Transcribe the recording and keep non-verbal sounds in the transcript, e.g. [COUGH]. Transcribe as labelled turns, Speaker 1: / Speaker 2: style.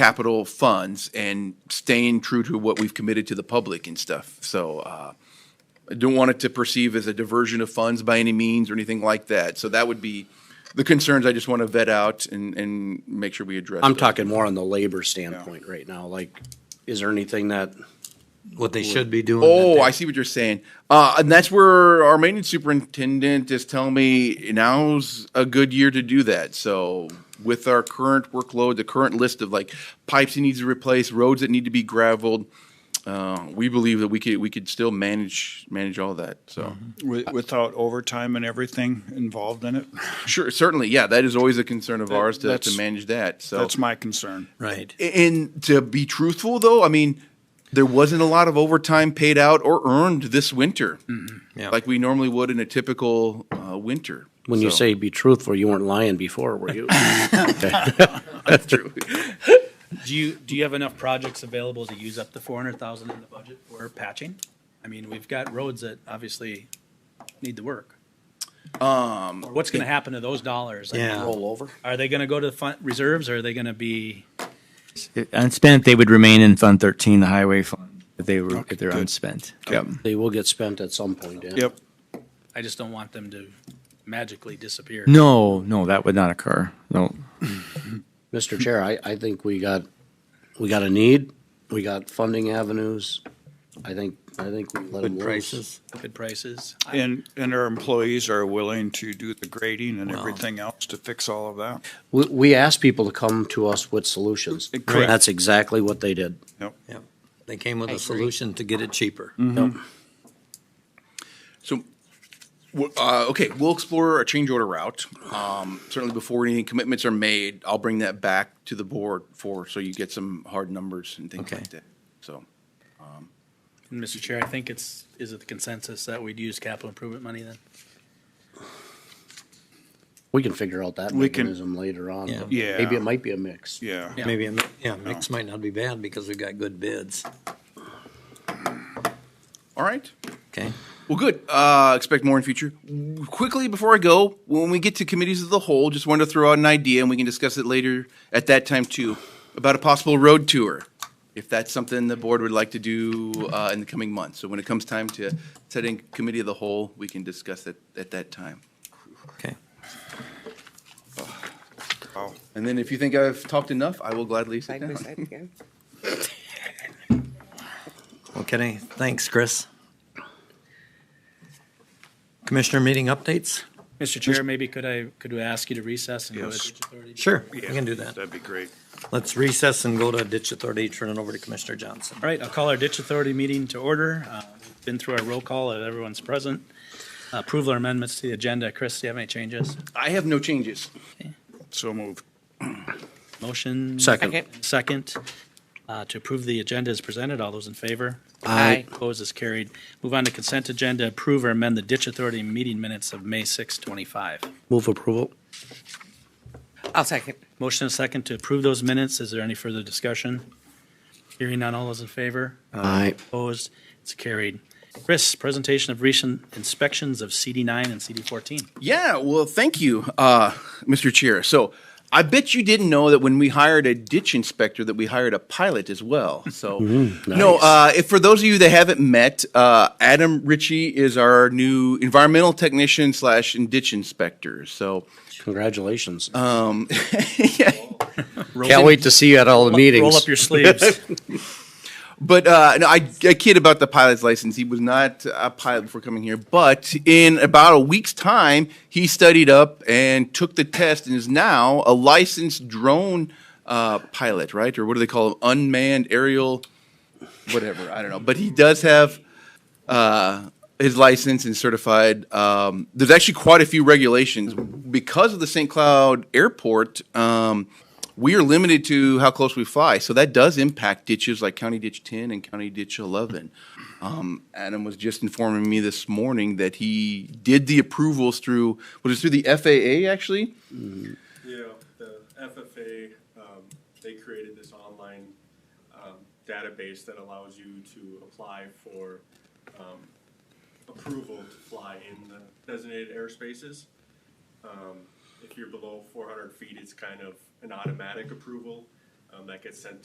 Speaker 1: capital funds and staying true to what we've committed to the public and stuff. So uh, I don't want it to perceive as a diversion of funds by any means or anything like that. So that would be the concerns I just want to vet out and, and make sure we address.
Speaker 2: I'm
Speaker 1: those.
Speaker 2: talking more on the labor standpoint right now, like, is there anything that,
Speaker 3: what they should be doing.
Speaker 1: Oh, I see what you're saying. Uh, and that's where our maintenance superintendent is telling me now's a good year to do that. So with our current workload, the current list of like pipes he needs to replace, roads that need to be gravelled, uh, we believe that we could, we could still manage, manage all that. So
Speaker 4: Wi- Without overtime and everything involved in it?
Speaker 1: sure, certainly, yeah, that is always a concern of ours to, to
Speaker 4: that's-
Speaker 1: manage that. So
Speaker 4: That's my concern.
Speaker 3: Right.
Speaker 1: And to be truthful, though, I mean, there wasn't a lot of overtime paid out or earned this winter,
Speaker 2: Mm-hmm.
Speaker 3: Yeah.
Speaker 1: like we normally would in a typical uh, winter.
Speaker 2: when you
Speaker 1: So-
Speaker 2: say be truthful, you weren't lying before, were you?
Speaker 1: that's true,
Speaker 5: Do you, do you have enough projects available to use up the four hundred thousand in the budget for patching? I mean, we've got roads that obviously need the work. Um. What's gonna happen to those dollars? I mean,
Speaker 3: [LAUGHS] Yeah.
Speaker 2: Roll over.
Speaker 5: Are they gonna go to the fun, reserves, or are they gonna be,
Speaker 6: Unspent, they would remain in Fund 13, the highway fund, if they were, if they're unspent. Yep.
Speaker 2: They will get spent at some point, yeah.
Speaker 4: Yep.
Speaker 5: I just don't want them to magically disappear.
Speaker 6: No, no, that would not occur. No.
Speaker 2: Mr. Chair, I, I think we got, we got a need, we got funding avenues. I think, I think we let them
Speaker 3: Good
Speaker 2: loose.
Speaker 3: prices.
Speaker 5: Good prices. I-
Speaker 4: And, and our employees are willing to do the grading and everything else to fix all of that.
Speaker 2: We, we asked people to come to us with solutions.
Speaker 4: Correct.
Speaker 2: That's exactly what they did.
Speaker 3: They came with a solution to get it cheaper.
Speaker 1: So, w- uh, okay, we'll explore a change order route. Um, certainly, before any commitments are made, I'll bring that back to the board for so you get some hard numbers and things
Speaker 6: Okay.
Speaker 1: like that. So,
Speaker 5: And Mr. Chair, I think it's, is it the consensus that we'd use capital improvement money then?
Speaker 2: We can figure out that
Speaker 4: We can-
Speaker 2: mechanism later on.
Speaker 3: Yeah.
Speaker 4: Yeah.
Speaker 2: Maybe it might be a mix.
Speaker 4: Yeah.
Speaker 5: Yeah.
Speaker 3: Maybe, a mi- yeah, mix might not be bad because we've got good bids.
Speaker 1: all right.
Speaker 3: Okay.
Speaker 1: Well, good. Uh, expect more in future. Quickly before I go, when we get to committees of the whole, just wanted to throw out an idea, and we can discuss it later at that time too, about a possible road tour, if that's something the board would like to do uh, in the coming months. So when it comes time to setting committee of the whole, we can discuss it at that time.
Speaker 3: Okay.
Speaker 4: Wow.
Speaker 1: And then if you think I've talked enough, I will gladly sit
Speaker 7: Side by
Speaker 1: down.
Speaker 7: side again.
Speaker 3: Okay. Thanks, Chris. Commissioner meeting updates?
Speaker 5: Mr. Chair, maybe could I, could we ask you to recess and go to
Speaker 4: Yes.
Speaker 5: ditch authority?
Speaker 3: Sure, we can do that.
Speaker 4: That'd be great.
Speaker 3: Let's recess and go to ditch authority, turn it over to Commissioner Johnson.
Speaker 5: All right, I'll call our ditch authority meeting to order. Uh, we've Been through our roll call, and everyone's present. Approval or amendments to the agenda. Chris, do you have any changes?
Speaker 1: I have no changes.
Speaker 4: So moved.
Speaker 5: Motion?
Speaker 2: Second.
Speaker 5: Second, uh, to approve the agenda as presented. All those in favor?
Speaker 7: Aye.
Speaker 5: Opposed is carried. Move on to consent agenda. Approve or amend the ditch authority meeting minutes of May 6, 25.
Speaker 2: Move approval.
Speaker 7: I'll second.
Speaker 5: Motion and second to approve those minutes. Is there any further discussion? Hearing none. All those in favor?
Speaker 2: Aye.
Speaker 5: Opposed? It's carried. Chris, presentation of recent inspections of CD9 and CD14.
Speaker 1: Yeah, well, thank you, uh, Mr. Chair. So I bet you didn't know that when we hired a ditch inspector, that we hired a pilot as well. So no, uh, if for those of you that haven't met, uh, Adam Ritchie is our new environmental technician slash ditch inspector. So
Speaker 2: Congratulations.
Speaker 5: Roll-
Speaker 2: Can't wait to see you at all the meetings.
Speaker 5: Roll up your sleeves.
Speaker 1: But uh, no, I, I kid about the pilot's license. He was not a pilot before coming here. But in about a week's time, he studied up and took the test and is now a licensed drone uh, pilot, right? Or what do they call them? Unmanned aerial, whatever. I don't know. But he does have uh, his license and certified. Um, there's actually quite a few regulations because of the St. Cloud Airport. Um, we are limited to how close we fly, so that does impact ditches like County Ditch 10 and County Ditch 11. Um, Adam was just informing me this morning that he did the approvals through was it through the FAA actually?
Speaker 8: Yeah, the FFA, um, they created this online, um, database that allows you to apply for, um, approval to fly in the designated airspaces. Um, if you're below four hundred feet, it's kind of an automatic approval. um, that gets sent